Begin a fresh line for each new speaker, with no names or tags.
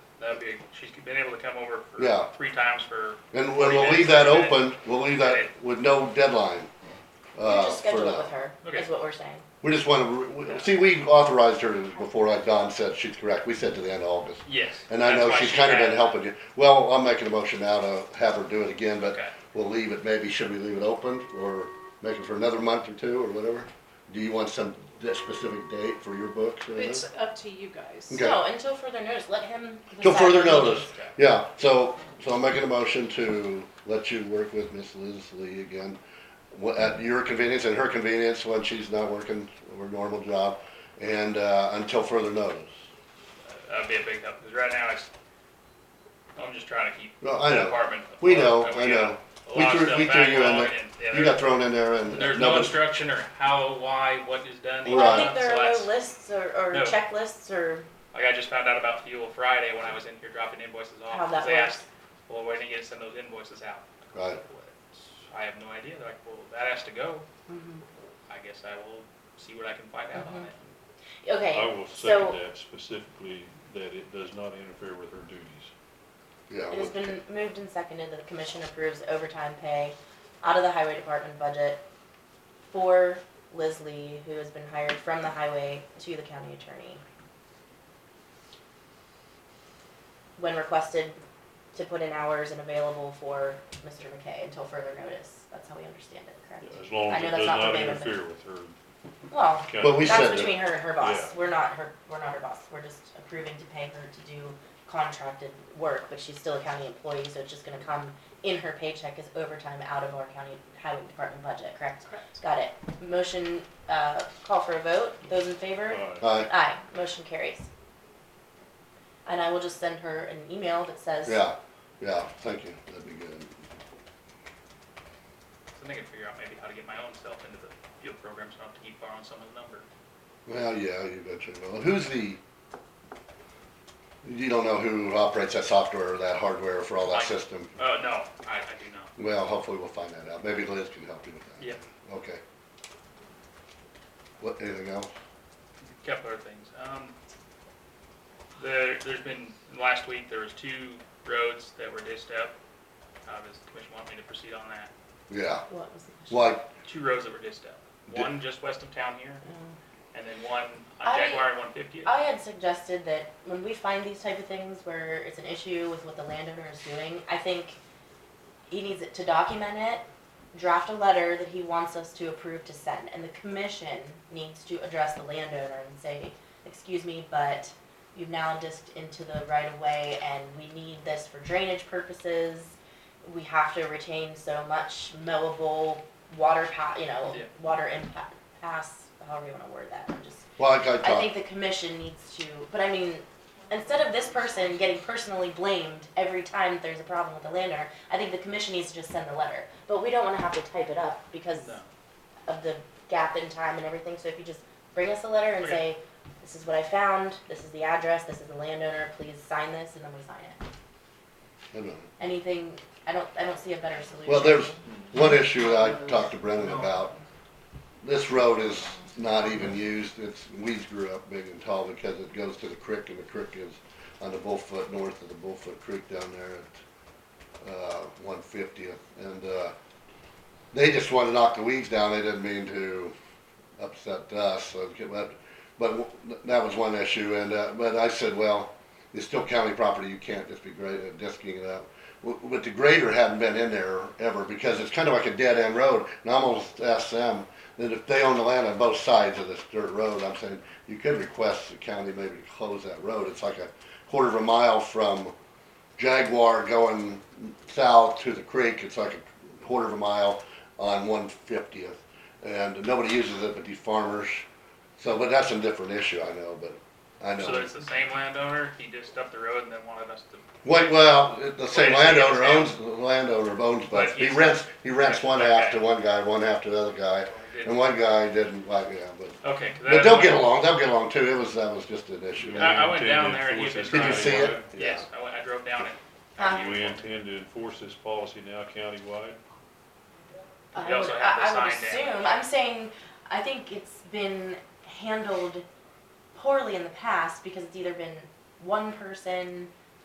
that'd be, she's been able to come over
Yeah.
for three times for,
And
40
we'll leave
minutes,
that
40 minutes.
open, we'll leave that with no deadline.
You
uh,
just
for
schedule it with
that.
her,
Okay.
is what we're saying.
We just want to, see, we authorized her before, like Don said, she's correct, we said to the end of August.
yes.
And I
that's
know
why
she's
she
kind of
had-
been helping you. Well, I'm making a motion now to have her do it again, but
Okay.
we'll leave it, maybe should we leave it open or make it for another month or two or whatever? Do you want some de- specific date for your books or
It's
anything?
up to you guys.
Okay.
No, until further notice, let him.
Till
decide
further
what he
notice,
needs.
yeah, so, so I'm making a motion to let you work with Miss Lizzie again. wh- At your convenience and her convenience when she's not working her normal job and, uh, until further notice.
That'd be a big help, because right now it's, I'm just trying to keep
No, I
the
know,
department.
we know,
afloat,
I
and we got
know.
a
We
lot of
threw,
stuff
we threw you in
backlog
there,
and, yeah,
you
there-
got thrown in there and.
There's no
nobody-
instruction or how, why, what is done.
Right.
Well, I think
So
there are
that's-
no lists or, or
No.
checklists or
Like I just found out about fuel Friday when I was in here dropping invoices off.
how that
'cause they
works.
asked, Well, when are you gonna send those invoices out? uh,
Right.
I have no idea. They're like, well, that has to go. I guess I will see what I can find out on
Mhm.
it.
I
Okay,
will
so-
second that specifically, that it does not interfere with her duties.
Yeah.
it has
well,
been moved and seconded that the commission approves overtime pay out of the highway department budget for Leslie, who has been hired from the highway to the county attorney. When requested to put in hours and available for Mr. McKay until further notice. That's how we understand it, correct?
As long
I
as
know
it
that's
does
not
not
verbatim, but-
interfere with her.
Well,
account-
But we said that-
That's between her and her boss.
Yeah.
We're not her, we're not her boss. We're just approving to pay her to do contracted work, but she's still a county employee, so it's just gonna come in her paycheck as overtime out of our county highway department budget, correct?
Correct.
Got it. Motion, uh, call for a vote. Those in favor?
Aye.
Aye,
Aye. Motion carries. And I will just send her an email that says.
yeah, yeah, thank you, that'd be good.
So then I can figure out maybe how to get my own self into the fuel program so I don't have to keep borrowing someone's number.
Well, yeah, you betcha, well, who's the, you don't know who operates that software or that hardware for all that
Mike.
system?
Oh, no, I, I do know.
Well, hopefully we'll find that out, maybe Liz can help you with that.
Yeah,
Okay. What, anything else?
a couple other things. Um, there, there's been, last week, there was two roads that were dished up. Uh, does the commission want me to proceed on that?
Yeah,
What was the question?
like,
Two roads that were dished up.
Di-
One just west of town here,
Um,
and then one on
I-
Jaguar and one fiftieth.
I had suggested that when we find these type of things where it's an issue with what the landowner is doing, I think he needs it to document it, draft a letter that he wants us to approve to send, and the commission needs to address the landowner and say, excuse me, but you've now disced into the right of way and we need this for drainage purposes. We have to retain so much mowable water pa, you know,
Yeah.
water impact, pass, however you wanna word that, I'm just
like I
I think
talked,
the commission needs to, but I mean, instead of this person getting personally blamed every time there's a problem with the landowner, I think the commission needs to just send the letter. But we don't wanna have to type it up because
No.
of the gap in time and everything, so if you just bring us a letter and
Okay.
say, this is what I found, this is the address, this is the landowner, please sign this, and then we sign it.
I don't know.
Anything, I don't, I don't see a better solution.
Well, there's one issue that I talked to Brendan about. This road is not even used. It's, weeds grew up big and tall because it goes to the creek and the creek is on the Bullfoot, north of the Bullfoot Creek down there at, uh, one fiftieth. And, uh, they just wanna knock the weeds down. They didn't mean to upset us. So, but, but that was one issue. And, uh, but I said, well, it's still county property. You can't just be great at disking it up. W- But the grader hadn't been in there ever because it's kind of like a dead end road. And I almost asked them that if they own the land on both sides of this dirt road, I'm saying you could request the county maybe to close that road. It's like a quarter of a mile from Jaguar going south to the creek. It's like a quarter of a mile on 150th. And nobody uses it but these farmers. So, but that's a different issue, I know, but I know.
So it's the same landowner, he just up the road and then wanted us to,
Wait, well, the same
Wait, it's-
landowner owns, the landowner owns both,
But
he
he's-
rents, he rents one half
Okay.
to one guy, one half to the other guy, and one guy didn't like, yeah, but,
okay. 'cause
but
that-
they'll get along, they'll get along too, it was, that was just an issue.
Do
I-
we
Yeah. I went
intend to
down there and he
enforce
was
Did
this
you see it?
countywide?
Yes, I went, I drove down it.
Huh?
Do we intend to enforce this policy now countywide?
I
You
would,
also have the
I I would
sign down.
assume, I'm saying, I think it's been handled poorly in the past because it's either been one person